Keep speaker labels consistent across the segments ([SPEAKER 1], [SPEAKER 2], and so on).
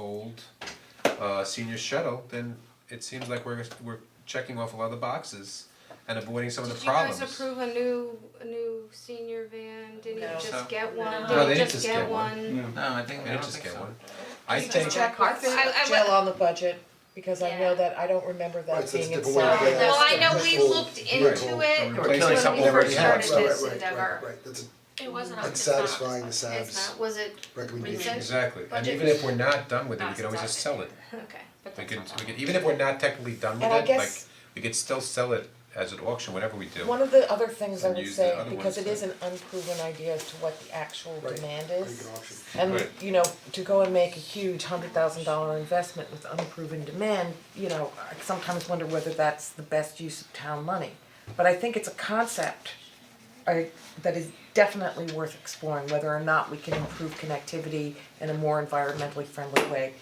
[SPEAKER 1] old uh senior shuttle, then it seems like we're we're checking off a lot of the boxes and avoiding some of the problems.
[SPEAKER 2] Did you guys approve a new, a new senior van? Didn't you
[SPEAKER 3] No.
[SPEAKER 1] No.
[SPEAKER 2] just get one?
[SPEAKER 3] No,
[SPEAKER 1] they
[SPEAKER 2] Did you
[SPEAKER 1] didn't
[SPEAKER 2] just
[SPEAKER 1] just
[SPEAKER 2] get
[SPEAKER 1] get one.
[SPEAKER 2] one?
[SPEAKER 4] No, I think,
[SPEAKER 1] I
[SPEAKER 4] I don't
[SPEAKER 1] just
[SPEAKER 4] think
[SPEAKER 1] get
[SPEAKER 4] so.
[SPEAKER 1] one. I
[SPEAKER 3] Just
[SPEAKER 1] think,
[SPEAKER 3] check with
[SPEAKER 2] I- I
[SPEAKER 3] Jill on the budget, because I
[SPEAKER 2] Yeah.
[SPEAKER 3] know that, I don't remember
[SPEAKER 5] Right,
[SPEAKER 3] that
[SPEAKER 5] so it's
[SPEAKER 3] being
[SPEAKER 5] a
[SPEAKER 2] Oh,
[SPEAKER 5] different way of
[SPEAKER 3] inside.
[SPEAKER 5] getting
[SPEAKER 2] Well, I
[SPEAKER 5] That's
[SPEAKER 2] know
[SPEAKER 5] the
[SPEAKER 2] we
[SPEAKER 5] whole-
[SPEAKER 2] looked
[SPEAKER 5] right.
[SPEAKER 2] into it
[SPEAKER 1] We're killing
[SPEAKER 2] when
[SPEAKER 1] something
[SPEAKER 2] we first
[SPEAKER 1] already had.
[SPEAKER 2] started
[SPEAKER 5] Right,
[SPEAKER 2] this
[SPEAKER 5] right, Right,
[SPEAKER 2] endeavor.
[SPEAKER 5] right, that's a
[SPEAKER 6] It wasn't on,
[SPEAKER 5] It's
[SPEAKER 6] it's not.
[SPEAKER 5] satisfying the
[SPEAKER 2] It's
[SPEAKER 5] SAB's
[SPEAKER 2] not, was it,
[SPEAKER 5] recommendation.
[SPEAKER 1] exactly, and
[SPEAKER 2] Budget.
[SPEAKER 1] even if we're not done with it, we
[SPEAKER 6] Boxes
[SPEAKER 1] can always just
[SPEAKER 6] out
[SPEAKER 1] sell it.
[SPEAKER 2] okay.
[SPEAKER 6] but
[SPEAKER 1] We
[SPEAKER 6] that's
[SPEAKER 1] could,
[SPEAKER 6] not
[SPEAKER 1] we
[SPEAKER 6] on.
[SPEAKER 1] could, even if we're not technically done with
[SPEAKER 3] And I
[SPEAKER 1] it, like,
[SPEAKER 3] guess-
[SPEAKER 1] we could still sell it as an auction, whatever we do.
[SPEAKER 3] One of the other things I
[SPEAKER 1] And
[SPEAKER 3] would
[SPEAKER 1] use the
[SPEAKER 3] say,
[SPEAKER 1] other
[SPEAKER 3] because
[SPEAKER 1] ones
[SPEAKER 3] it
[SPEAKER 1] to-
[SPEAKER 3] is an unproven idea as to what the actual
[SPEAKER 5] Right.
[SPEAKER 3] demand
[SPEAKER 5] Or
[SPEAKER 3] is.
[SPEAKER 5] you can auction.
[SPEAKER 3] And,
[SPEAKER 1] Right.
[SPEAKER 3] you know, to go and make a huge hundred thousand dollar investment with unproven demand, you know, I sometimes wonder whether that's the best use of town money. But I think it's a concept I that is definitely worth exploring, whether or not we can improve connectivity in a more environmentally friendly way.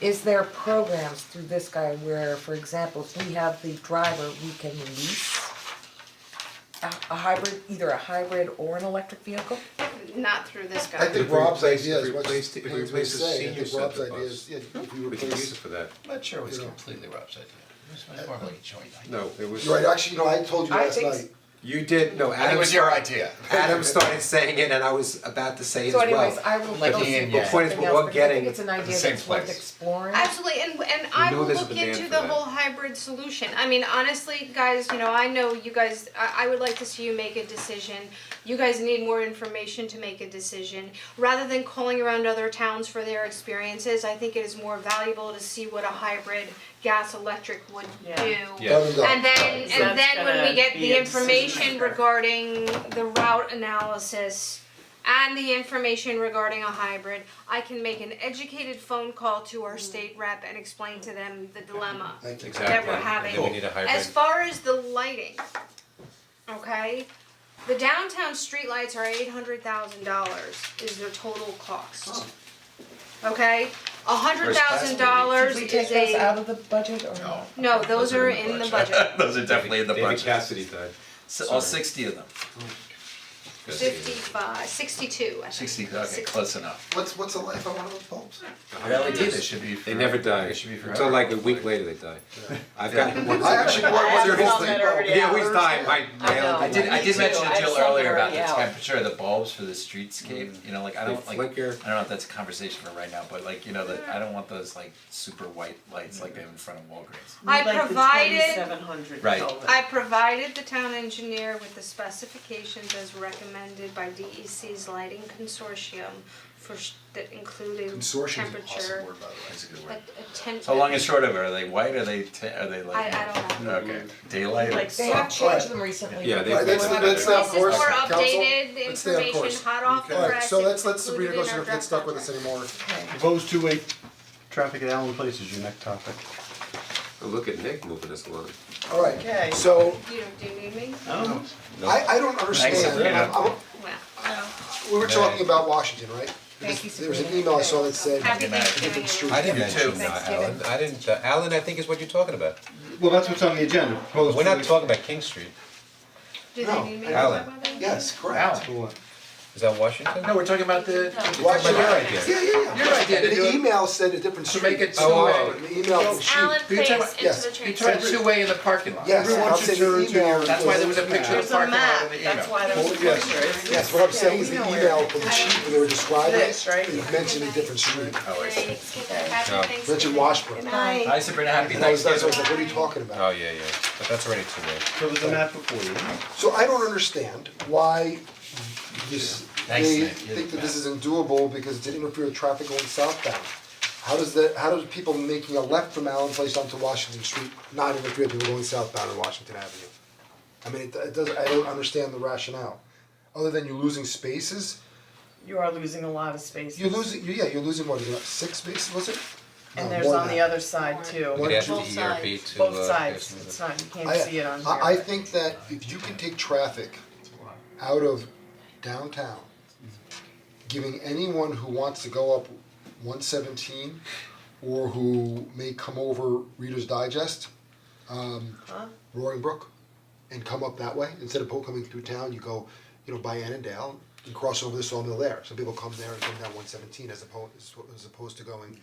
[SPEAKER 3] Is there programs through this guy where, for example, if we have the driver, we can lease a a hybrid, either a hybrid or an electric vehicle?
[SPEAKER 2] Not through this guy.
[SPEAKER 5] I think
[SPEAKER 1] If we
[SPEAKER 5] Rob's
[SPEAKER 1] replace-
[SPEAKER 5] idea
[SPEAKER 1] if
[SPEAKER 5] is
[SPEAKER 1] we
[SPEAKER 5] what
[SPEAKER 1] replace the-
[SPEAKER 5] he's
[SPEAKER 1] if we
[SPEAKER 5] been
[SPEAKER 1] replace the
[SPEAKER 5] saying, I
[SPEAKER 1] senior
[SPEAKER 5] think Rob's
[SPEAKER 1] center
[SPEAKER 5] idea is, yeah, if you
[SPEAKER 1] We could use it
[SPEAKER 5] replace,
[SPEAKER 1] for that.
[SPEAKER 7] I'm not sure it was
[SPEAKER 5] You know.
[SPEAKER 7] completely Rob's idea, it was more like a joint idea.
[SPEAKER 1] No, it was.
[SPEAKER 5] you're right, actually, you know, I told you
[SPEAKER 3] I
[SPEAKER 5] last
[SPEAKER 3] think-
[SPEAKER 5] night,
[SPEAKER 1] You did, no,
[SPEAKER 7] And it
[SPEAKER 1] Adam,
[SPEAKER 7] was your idea.
[SPEAKER 1] Adam started saying it and I was about to say as
[SPEAKER 3] So
[SPEAKER 1] well.
[SPEAKER 3] anyways, I will
[SPEAKER 7] Like
[SPEAKER 3] go
[SPEAKER 7] the
[SPEAKER 3] see
[SPEAKER 7] yin yang.
[SPEAKER 1] Point is,
[SPEAKER 3] something
[SPEAKER 1] we're all
[SPEAKER 3] else, because I
[SPEAKER 1] getting
[SPEAKER 3] think it's an idea
[SPEAKER 7] same
[SPEAKER 3] that's worth
[SPEAKER 7] place.
[SPEAKER 3] exploring.
[SPEAKER 2] Absolutely, and and I
[SPEAKER 1] know
[SPEAKER 2] will
[SPEAKER 1] there's a
[SPEAKER 2] look
[SPEAKER 1] demand
[SPEAKER 2] into
[SPEAKER 1] for
[SPEAKER 2] the
[SPEAKER 1] that.
[SPEAKER 2] whole hybrid solution. I mean, honestly, guys, you know, I know you guys, I I would like to see you make a decision. You guys need more information to make a decision. Rather than calling around other towns for their experiences, I think it is more valuable to see what a hybrid gas electric would do.
[SPEAKER 3] Yeah.
[SPEAKER 1] Yeah.
[SPEAKER 5] done and done.
[SPEAKER 2] And then,
[SPEAKER 3] So
[SPEAKER 2] and
[SPEAKER 3] that's
[SPEAKER 2] then when we
[SPEAKER 3] gonna
[SPEAKER 2] get
[SPEAKER 3] be
[SPEAKER 2] the
[SPEAKER 3] a decision
[SPEAKER 2] information
[SPEAKER 3] maker.
[SPEAKER 2] regarding the route analysis and the information regarding a hybrid, I can make an educated phone call to
[SPEAKER 3] Mm.
[SPEAKER 2] our state rep and explain to them the dilemma
[SPEAKER 5] Thank you.
[SPEAKER 2] that
[SPEAKER 1] Exactly,
[SPEAKER 2] we're
[SPEAKER 1] and then we
[SPEAKER 2] having.
[SPEAKER 1] need a hybrid.
[SPEAKER 2] As far as the lighting, okay? The downtown streetlights are eight hundred thousand dollars is their total cost. Okay, a hundred
[SPEAKER 7] Where's
[SPEAKER 2] thousand
[SPEAKER 7] Casper?
[SPEAKER 2] dollars
[SPEAKER 3] Should Oh. we
[SPEAKER 2] is
[SPEAKER 3] take those out
[SPEAKER 2] a,
[SPEAKER 3] of the budget or not?
[SPEAKER 2] no, those are in the budget.
[SPEAKER 7] Those are definitely in the
[SPEAKER 1] David
[SPEAKER 7] budget,
[SPEAKER 1] Cassidy died.
[SPEAKER 7] S- all sixty of them,
[SPEAKER 1] Good.
[SPEAKER 2] 55, 62, I think.
[SPEAKER 7] sixty, okay, close enough.
[SPEAKER 5] What's, what's the life of one of those bulbs?
[SPEAKER 7] Really did, they should be
[SPEAKER 1] They
[SPEAKER 7] for-
[SPEAKER 1] never die.
[SPEAKER 7] They should be forever.
[SPEAKER 1] Until like a week later, they die. I've gotten one.
[SPEAKER 5] I actually bought one of those things.
[SPEAKER 1] Yeah, always die. My my
[SPEAKER 3] know.
[SPEAKER 1] elder.
[SPEAKER 7] I did, I
[SPEAKER 3] Me
[SPEAKER 7] did
[SPEAKER 3] too,
[SPEAKER 7] mention to
[SPEAKER 3] I
[SPEAKER 7] Jill
[SPEAKER 3] saw them
[SPEAKER 7] earlier about
[SPEAKER 3] already
[SPEAKER 7] the
[SPEAKER 3] out.
[SPEAKER 7] temperature of the bulbs for the
[SPEAKER 2] Mm.
[SPEAKER 7] streetscape, you know, like, I
[SPEAKER 1] They
[SPEAKER 7] don't, like, I don't
[SPEAKER 1] flicker.
[SPEAKER 7] know if that's a conversation for right now, but like, you know, that, I don't want those like super white lights like they
[SPEAKER 2] Mm.
[SPEAKER 7] have in front of Walgreens.
[SPEAKER 2] I provided,
[SPEAKER 8] Seven hundred.
[SPEAKER 7] Right.
[SPEAKER 2] I provided the town engineer with the specifications as recommended by DEC's lighting consortium for, sh- that included
[SPEAKER 5] Consortium is an awesome
[SPEAKER 2] temperature,
[SPEAKER 5] word, by the way.
[SPEAKER 7] That's a good
[SPEAKER 2] a,
[SPEAKER 7] word.
[SPEAKER 2] a temp-
[SPEAKER 7] So long and short of it, are they white, are they, ta- are they
[SPEAKER 2] I,
[SPEAKER 7] like?
[SPEAKER 2] I don't know.
[SPEAKER 7] Okay, daylight,
[SPEAKER 8] Like
[SPEAKER 3] They
[SPEAKER 8] soft
[SPEAKER 3] have
[SPEAKER 5] Alright.
[SPEAKER 3] changed them recently.
[SPEAKER 1] Yeah, they-
[SPEAKER 5] Alright, let's,
[SPEAKER 1] They-
[SPEAKER 5] let's stay on
[SPEAKER 2] This is more
[SPEAKER 5] course, council.
[SPEAKER 2] updated
[SPEAKER 5] Let's stay on course.
[SPEAKER 2] information, hot off the
[SPEAKER 5] All right,
[SPEAKER 2] press,
[SPEAKER 5] so let's, let's
[SPEAKER 2] included
[SPEAKER 5] Sabrina
[SPEAKER 2] in
[SPEAKER 5] go,
[SPEAKER 2] our
[SPEAKER 5] she don't get
[SPEAKER 2] draft
[SPEAKER 5] stuck with us
[SPEAKER 2] contract.
[SPEAKER 5] anymore.
[SPEAKER 9] Proposed two-way traffic at Allen Place is your next topic.
[SPEAKER 1] Oh, Look at Nick moving us along.
[SPEAKER 5] All
[SPEAKER 8] Okay.
[SPEAKER 5] right, so
[SPEAKER 2] You don't do you need me?
[SPEAKER 5] I, I don't understand,
[SPEAKER 7] Sabrina.
[SPEAKER 5] I'm- I'm-
[SPEAKER 2] Well,
[SPEAKER 5] we were talking about Washington, right?
[SPEAKER 3] Thank you,
[SPEAKER 5] There was an
[SPEAKER 3] Sabrina.
[SPEAKER 5] email I saw that said,
[SPEAKER 2] happy
[SPEAKER 7] Good night.
[SPEAKER 2] Thanksgiving. everyone.
[SPEAKER 1] I didn't
[SPEAKER 7] You too.
[SPEAKER 1] mention that, Alan. I didn't, uh, Alan, I think is what you're talking about.
[SPEAKER 9] Well, that's what's on the agenda, proposed
[SPEAKER 1] We're not
[SPEAKER 9] two-way.
[SPEAKER 1] talking about King Street.
[SPEAKER 2] Do
[SPEAKER 5] No,
[SPEAKER 2] they need me to
[SPEAKER 1] Alan.
[SPEAKER 2] talk about that?
[SPEAKER 5] yes, correct.
[SPEAKER 7] Alan,
[SPEAKER 9] For what?
[SPEAKER 1] Is that Washington?
[SPEAKER 7] no, we're talking about the,
[SPEAKER 1] Washington.
[SPEAKER 5] Washington,
[SPEAKER 1] Your
[SPEAKER 5] yeah,
[SPEAKER 1] idea.
[SPEAKER 5] yeah, yeah.
[SPEAKER 7] Your idea to do
[SPEAKER 5] The
[SPEAKER 7] it-
[SPEAKER 5] email said a different
[SPEAKER 7] to make
[SPEAKER 5] street.
[SPEAKER 7] it
[SPEAKER 1] Oh,
[SPEAKER 7] two-way.
[SPEAKER 5] But the email from sheet.
[SPEAKER 6] Alan
[SPEAKER 7] You're
[SPEAKER 6] Place
[SPEAKER 7] talking-
[SPEAKER 5] yes.
[SPEAKER 6] into the train
[SPEAKER 7] You turned two-way in the parking lot.
[SPEAKER 5] Yes,
[SPEAKER 9] Everyone
[SPEAKER 5] I'm
[SPEAKER 9] should
[SPEAKER 5] saying
[SPEAKER 9] turn
[SPEAKER 5] the
[SPEAKER 9] to your-
[SPEAKER 5] email.
[SPEAKER 7] That's why there was a picture of
[SPEAKER 8] There's
[SPEAKER 7] the
[SPEAKER 8] a
[SPEAKER 7] parking lot
[SPEAKER 8] map,
[SPEAKER 7] in the email.
[SPEAKER 8] that's why there was a
[SPEAKER 9] yes.
[SPEAKER 8] picture.
[SPEAKER 5] Yes, what I'm saying is the
[SPEAKER 8] Yeah, we know
[SPEAKER 5] email from the chief, when they were describing it,
[SPEAKER 8] This, right?
[SPEAKER 5] it mentioned a different street.
[SPEAKER 7] Oh, I see.
[SPEAKER 1] No.
[SPEAKER 6] Happy Thanksgiving.
[SPEAKER 5] Mentioned Washburn.
[SPEAKER 8] Hi.
[SPEAKER 7] Hi Sabrina, happy
[SPEAKER 5] And I was, that's why
[SPEAKER 7] Thanksgiving.
[SPEAKER 5] I was like, what are you talking about?
[SPEAKER 1] Oh, yeah, yeah, but that's already too late.
[SPEAKER 9] So there's a map before you.
[SPEAKER 5] So I don't understand why this,
[SPEAKER 7] Thanks,
[SPEAKER 5] they
[SPEAKER 7] Nick. You're
[SPEAKER 5] think
[SPEAKER 7] the
[SPEAKER 5] that this
[SPEAKER 7] best.
[SPEAKER 5] is undoable because it interferes with traffic going southbound. How does that, how does people making a left from Allen Place onto Washington Street not interfere with people going southbound on Washington Avenue? I mean, it, it doesn't, I don't understand the rationale, other than you're losing spaces,
[SPEAKER 8] You are losing a lot of spaces.
[SPEAKER 5] you're losing, yeah, you're losing what, is it, six spaces, was it? No,
[SPEAKER 8] And there's
[SPEAKER 5] more
[SPEAKER 8] on
[SPEAKER 5] than
[SPEAKER 8] the
[SPEAKER 5] that.
[SPEAKER 8] other side too.
[SPEAKER 5] One,
[SPEAKER 1] We'd ask
[SPEAKER 5] two,
[SPEAKER 1] the ERB to, uh.
[SPEAKER 8] Both sides, it's not, you can't see it on here.
[SPEAKER 5] I I I
[SPEAKER 8] but-
[SPEAKER 5] think that if you can take traffic out of downtown, giving anyone who wants to go up one seventeen or who may come over Reader's Digest,
[SPEAKER 8] Huh?
[SPEAKER 5] um Roaring Brook, and come up that way, instead of po- coming through town, you go, you know, by Annandale and cross over the sawmill there, so people come there and come down one seventeen as opposed as opposed to going